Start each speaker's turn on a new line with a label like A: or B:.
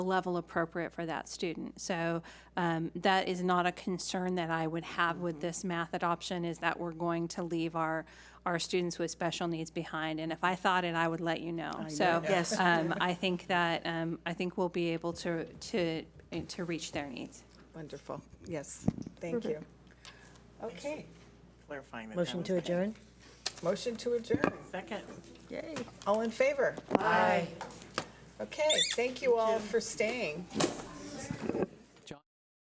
A: level appropriate for that student. So um, that is not a concern that I would have with this math adoption, is that we're going to leave our, our students with special needs behind. And if I thought it, I would let you know. So
B: Yes.
A: um, I think that, um, I think we'll be able to, to, to reach their needs.
B: Wonderful. Yes, thank you. Okay,
C: clarifying that. that
D: Motion
C: was-
D: to adjourn?
B: motion to adjourn.
C: Second.
D: Yay.
B: All in favor? Aye. Okay, thank you all for staying.